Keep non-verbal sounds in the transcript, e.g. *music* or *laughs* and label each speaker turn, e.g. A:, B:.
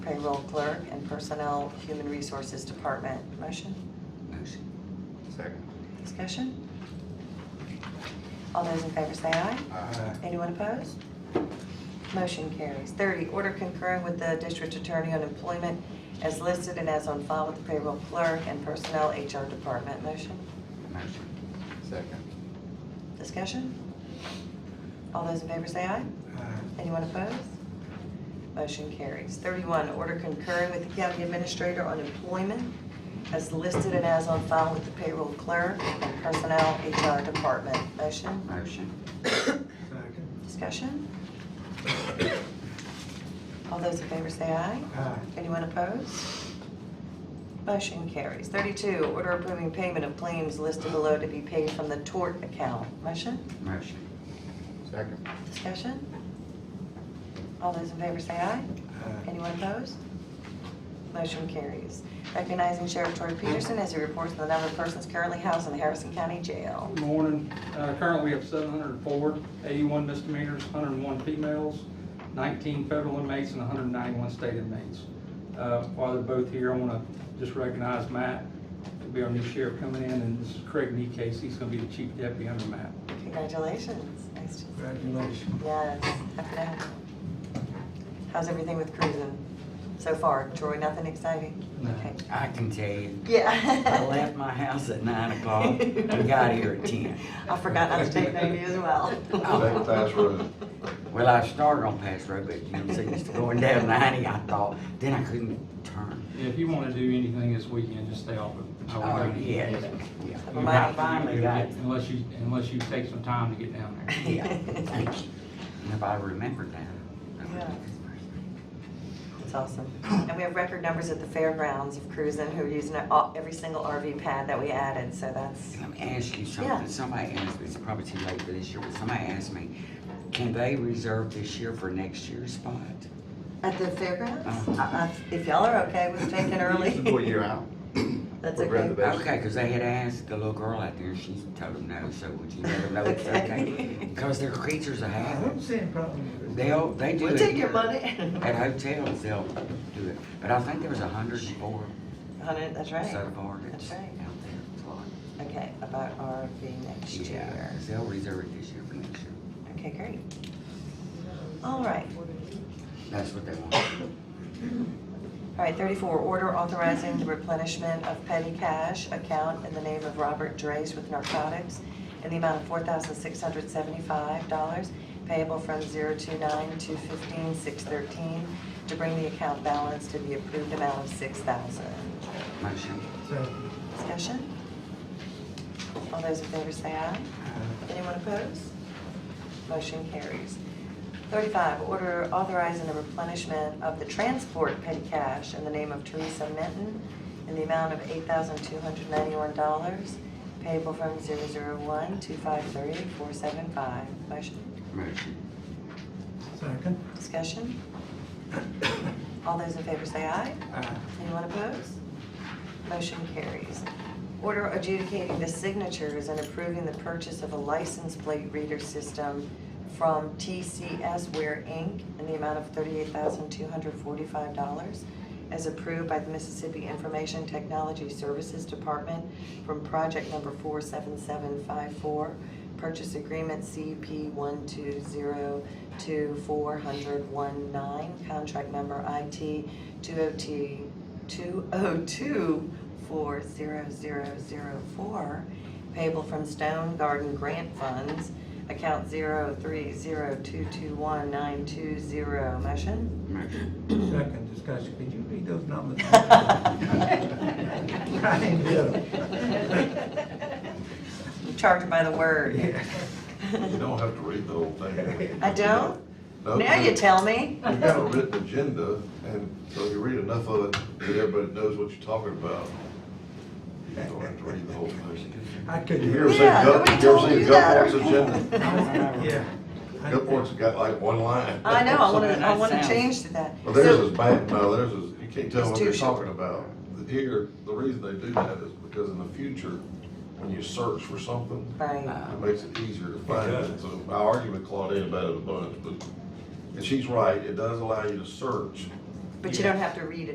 A: payroll clerk, and personnel, human resources department. Motion?
B: Motion.
C: Second.
A: Discussion? All those in favor say aye.
C: Aye.
A: Anyone opposed? Motion carries. Thirty, order concurring with the district attorney on employment as listed and as on file with the payroll clerk and personnel HR department. Motion?
B: Motion.
C: Second.
A: Discussion? All those in favor say aye. Anyone opposed? Motion carries. Thirty-one, order concurring with the county administrator on employment as listed and as on file with the payroll clerk and personnel HR department. Motion?
B: Motion.
D: Second.
A: Discussion? All those in favor say aye.
D: Aye.
A: Anyone opposed? Motion carries. Thirty-two, order approving payment of claims listed below to be paid from the tort account. Motion?
B: Motion.
C: Second.
A: Discussion? All those in favor say aye.
D: Aye.
A: Anyone opposed? Motion carries. Recognizing Sheriff Troy Peterson as he reports on the number of persons currently housed in the Harrison County Jail.
E: Good Morning. Uh, Currently, we have 704, 81 misdemeanors, 101 females, 19 federal inmates, and 191 state inmates. Uh, While they're both here, I want to just recognize Matt, to be our new sheriff coming in, and this is Craig Neecase. He's going to be the chief deputy under Matt.
A: Congratulations. Nice to
D: Congratulations.
A: Yes, happy to have you. How's everything with cruising so far? Troy, nothing exciting?
E: No.
A: Okay.
B: I can tell you,
A: Yeah.
B: I left my house at nine o'clock and got here at ten.
A: I forgot not to
B: *laughs*
A: take note of you as well.
B: Second
C: class road.
A: *laughs*
B: Well, I started on Pass Road, but you know, so used to going down ninety, I thought, then I couldn't turn.
E: If you want to do anything this weekend, just stay off of Highway
B: Oh,
E: 90.
B: yeah, yeah.
A: Somebody-
B: I finally got,
E: Unless you, unless you take some time to get down there.
B: yeah, thank you. And if I remembered that. I would
A: Yeah.
B: do this person.
A: That's awesome. And we have record numbers at the fairgrounds of cruising who are using it all- every single RV pad that we added, so that's,
B: Let me ask you
A: Yeah.
B: something. Somebody asked me, it's probably too late for this year, but somebody asked me, can they reserve this year for next year's spot?
A: at the fairgrounds? Uh, uh, If y'all are okay with taking
C: Full
A: early,
C: year out.
A: that's
C: We'd rather
A: okay.
C: that.
B: Okay, because they had asked the little girl out there, and she told them no, so would you let her know it's
A: *laughs*
B: okay?
A: Okay.
B: Because they're creatures of
D: I don't
B: habit.
E: Uh-huh.
D: see any problem with it.
B: They'll, they do it.
A: We'll take your
B: here.
A: money.
B: At hotels, they'll do it. But I think there was a hundred and four
A: *laughs* Hundred, that's
B: so
A: right.
B: far that's
A: That's
B: out
A: right.
B: there. It's a lot.
A: Okay, about RV next
B: Yeah,
A: year.
B: 'cause they'll reserve it this year for next year.
A: Okay, great. All right.
B: That's what they
A: *coughs*
B: want.
A: All right, 34, order authorizing the replenishment of petty cash account in the name of Robert Drace with narcotics in the amount of $4,675 payable from 029 to 15 613 to bring the account balance to the approved amount of 6,000.
B: Motion.
D: Second.
A: Discussion? All those in favor say aye.
D: Aye.
A: Anyone opposed? Motion carries. Thirty-five, order authorizing the replenishment of the transport petty cash in the name of Teresa Minton in the amount of eight thousand two hundred ninety-one dollars payable from zero zero one two five three four seven five. Motion,
B: Motion.
D: Second.
A: discussion? All those in favor say aye.
D: Aye.
A: Anyone opposed? Motion carries. Order adjudicating the signatures and approving the purchase of a license plate reader system from TCS Ware Inc. in the amount of $38,245 as approved by the Mississippi Information Technology Services Department from project number 47754, purchase agreement CP 120240019, contract number IT 202 202-40004, payable from Stone Garden Grant Funds, account 0302219220. Motion?
B: *laughs* Motion.
D: Second discussion. Could you read those numbers? I didn't hear them.
A: I'm charged by the word.
D: Yeah.
F: You don't have to read the whole thing.
A: I don't?
F: No,
A: Now you tell me.
F: *laughs* You got a written agenda, and so you read enough of it that everybody knows what you're talking about. You don't have to read the whole thing.
D: I
F: You
D: couldn't.
F: ever
D: hear
F: seen
A: Yeah,
F: Gulf-
A: nobody told
F: you ever seen
A: you
F: Gulfport's
A: that.
F: agenda?
D: Yeah. I-
F: Gulfport's got like one line.
A: I know, I want to, I
B: That
A: want to
B: sounds-
A: change to that.
F: Well, theirs
A: So-
F: is bad, no, theirs is, you can't
A: It's
F: tell what
A: too
F: they're
A: short.
F: talking about. Here, the reason they do that is because in the future, when you search for something,
A: Right.
F: It makes it easier to find it, so I argue with Claudine about it a bunch, but, and she's right, it does allow you to search
A: But you don't have to read it.